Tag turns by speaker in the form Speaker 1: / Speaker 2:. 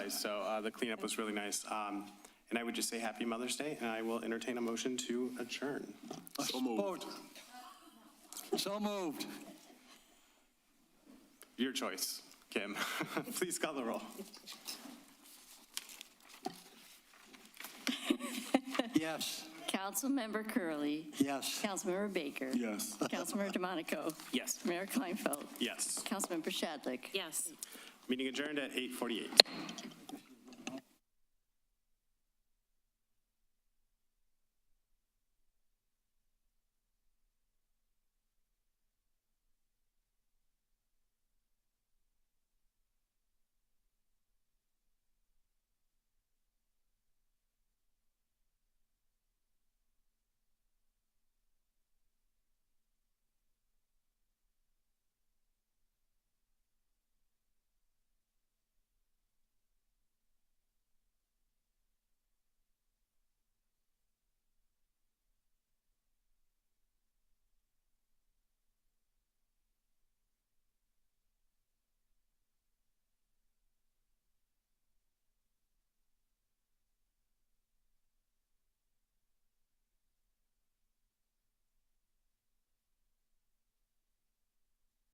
Speaker 1: guys, so uh, the cleanup was really nice. Um, And I would just say Happy Mother's Day, and I will entertain a motion to adjourn.
Speaker 2: So moved. So moved.
Speaker 1: Your choice, Kim. Please call the roll.
Speaker 2: Yes,
Speaker 3: Councilmember Curley,
Speaker 2: yes.
Speaker 3: Councilmember Baker.
Speaker 2: Yes.
Speaker 3: Councilmember DeMonico.
Speaker 1: Yes.
Speaker 3: Mayor Kleinfeld.
Speaker 1: Yes.
Speaker 3: Councilmember Shadlick.
Speaker 4: Yes.
Speaker 1: Meeting adjourned at 8:48.